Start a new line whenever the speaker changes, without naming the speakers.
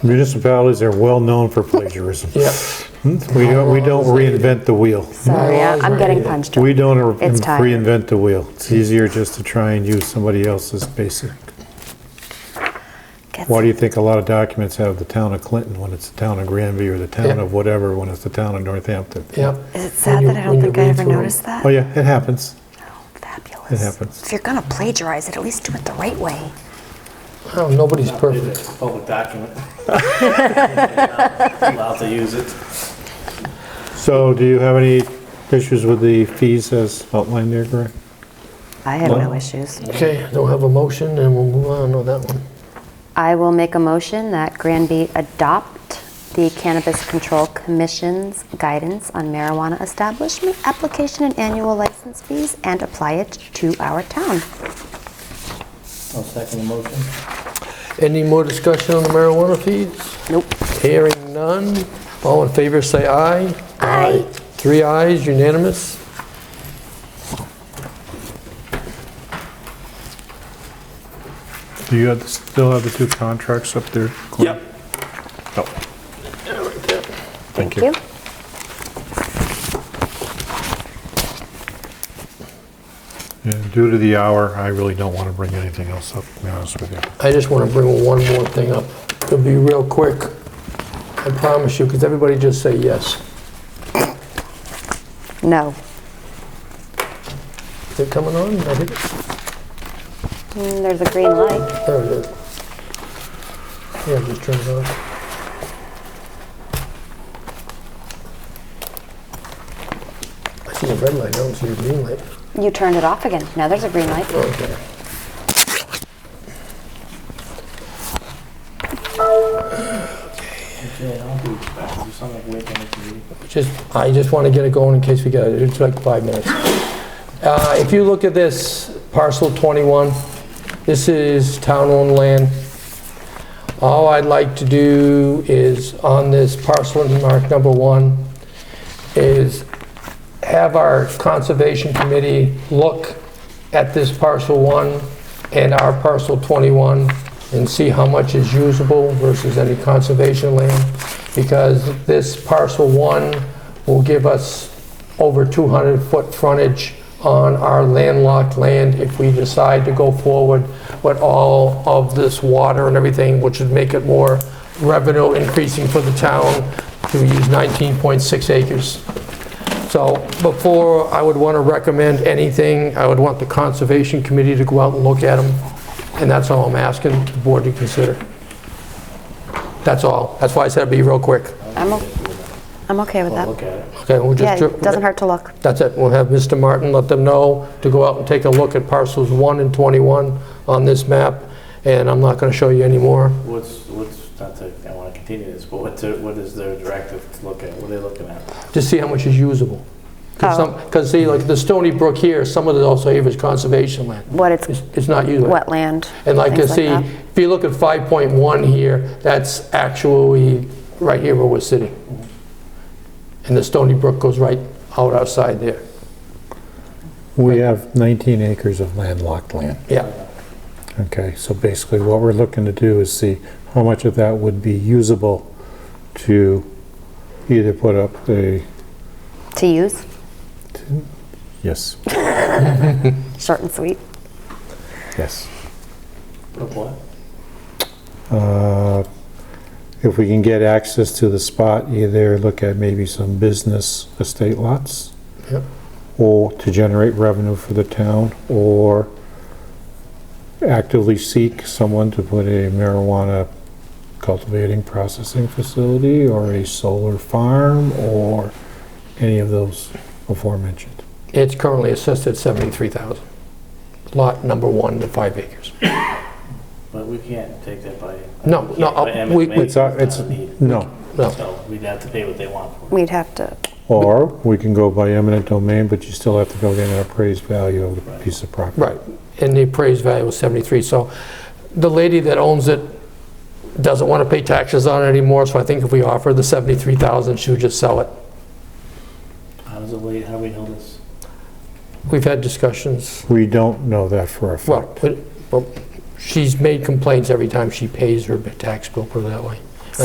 Municipalities are well-known for plagiarism.
Yep.
We don't, we don't reinvent the wheel.
Sorry, I- I'm getting punched.
We don't
It's tired.
reinvent the wheel. It's easier just to try and use somebody else's basic.
Gets-
Why do you think a lot of documents have the town of Clinton when it's the town of Granby, or the town
Yeah.
of whatever when it's the town of Northampton?
Yep.
Is it
When
sad
you-
that I
when
don't
you
think I
read
ever
through 'em.
noticed that?
Oh, yeah, it happens.
Fabulous.
It happens.
If you're gonna plagiarize it, at least do it the right way.
Oh, nobody's perfect.
It's a public document. Allowed to use it.
So do you have any issues with the fees as outlined there, Greg?
I have
no
no issues.
Okay, I don't have a motion, and we'll move on on that one.
I will make a motion that Granby adopt the Cannabis Control Commission's guidance on marijuana establishment, application and annual license fees, and apply it to our town.
I'll second the motion.
Any more discussion on the marijuana fees?
Nope.
Hearing none. All in favor, say aye. Aye. Three ayes, unanimous.
Do you have- still have the two contracts up there? Glenn?
Yep.
Oh. Thank you. And due to the hour, I really don't want to bring anything else up, to be honest with you.
I just want to bring one more thing up. It'll be real quick. I promise you, because everybody just say yes.
No.
Is it coming on? I think it-
Mm, There's a green light.
There it is. Yeah, it just turns on. I see a red light, I don't see a green light.
You turned it off again. Now there's a green light.
Okay.
Okay, I'll do I'll do something like wait on the
Just, I just want to get it going in case we get, it. it's like five minutes. Uh, If you look at this parcel 21, this is town-owned land. All I'd like to do is, on this parcel mark number one, is have our conservation committee look at this parcel one and our parcel 21 and see how much is usable versus any conservation land, because this parcel one will give us over 200-foot frontage on our landlocked land if we decide to go forward with all of this water and everything, which would make it more revenue increasing for the town to use 19.6 acres. So before I would want to recommend anything, I would want the Conservation Committee to go out and look at them, and that's all I'm asking the board to consider. That's all. That's why I said it'd be real quick.
I'm, o- I'm okay with
I'll
Oh,
that.
look at it.
Okay, we'll just...
Yeah, it doesn't hurt to look.
That's it. We'll have Mr. Martin let them know to go out and take a look at parcels 1 and 21 on this map, and I'm not going to show you anymore.
What's, what's, not to, I want to continue this, but what's, their- what is their directive to look at? What are they looking at?
to see how much is usable.
Oh.
Because see, like the Stony Brook here, some of it also here is conservation land.
What it's,
It's it's not usable.
wetland.
And like you
things
see,
that.
if you look at 5.1 here, that's actually right here where we're sitting. And the Stony Brook goes right out outside there.
We have 19 acres of landlocked land.
Yeah,
Okay, so basically what we're looking to do is see how much of that would be usable to either put up a,
To use,
yes,
short and sweet.
yes.
Of what?
Uh, If we can get access to the spot, either look at maybe some business estate lots.
Yep.
Or to generate revenue for the town, or actively seek someone to put a marijuana cultivating processing facility, or a solar farm, or any of those aforementioned.
it's currently assessed at 73,000. Lot number one to five acres.
But we can't take that by.
No,
we
no,
can't by
uh, we-
eminent domain.
It's our- it's-
not a need.
No,
No.
So we'd have to pay what they want for it.
We'd have to,
or we can go by eminent domain, but you still have to go get an appraised value of the piece of property.
Right, and the appraised value was 73. So the lady that owns it doesn't want to pay taxes on it anymore, so I think if we offer the 73,000, she would just sell it.
How does it late, how do we know this?
We've had discussions,
We don't know that for a fact.
well, but- well, she's made complaints every time she pays her tax bill, put it that way.